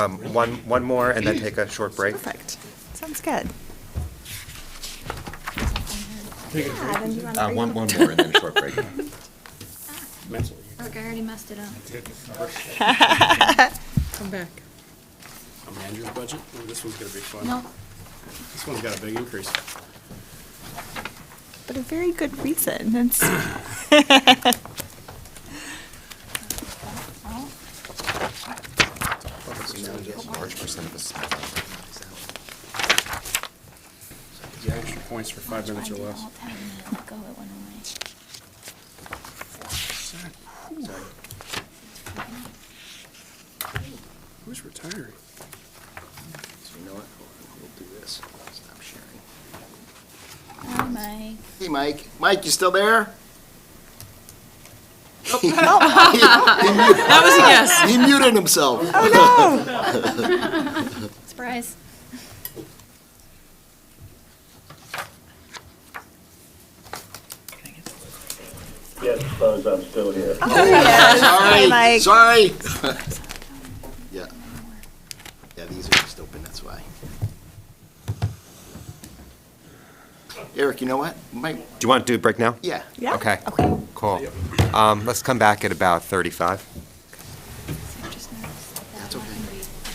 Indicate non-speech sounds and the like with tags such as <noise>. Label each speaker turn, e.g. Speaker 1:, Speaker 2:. Speaker 1: Um, One, one more, and then take a short break.
Speaker 2: Perfect. Sounds good. Yeah, then you wanna
Speaker 3: Uh,
Speaker 2: bring
Speaker 3: one,
Speaker 2: up-
Speaker 3: one more and then a short break.
Speaker 4: Look, I already messed it up.
Speaker 5: Come back.
Speaker 6: Um, Andrew's budget, Ooh, this one's gonna be fun.
Speaker 4: No,
Speaker 6: This one's got a big increase.
Speaker 2: But a very good reason.
Speaker 3: <coughs>
Speaker 2: It's
Speaker 4: no.
Speaker 3: Large percent of us.
Speaker 6: Yeah, extra points for five minutes or less.
Speaker 4: Go, it went away.
Speaker 6: Sorry. Who's retiring?
Speaker 3: So you know what? Hold on, We'll do this. Stop sharing.
Speaker 4: Hi, Mike.
Speaker 3: Hey, Mike. Mike, you still there? <laughs>
Speaker 5: That was a yes.
Speaker 3: He muted himself.
Speaker 4: Surprise.
Speaker 7: Yes, suppose I'm still here.
Speaker 3: Sorry,
Speaker 2: Mike.
Speaker 3: sorry. <laughs> Yeah. Yeah, these are just open, that's why. Eric, you know what? Mike,
Speaker 1: Do you want to do a break now?
Speaker 3: yeah.
Speaker 2: yeah.
Speaker 1: Okay.
Speaker 2: Okay.
Speaker 1: Cool. Um, Let's come back at about 35.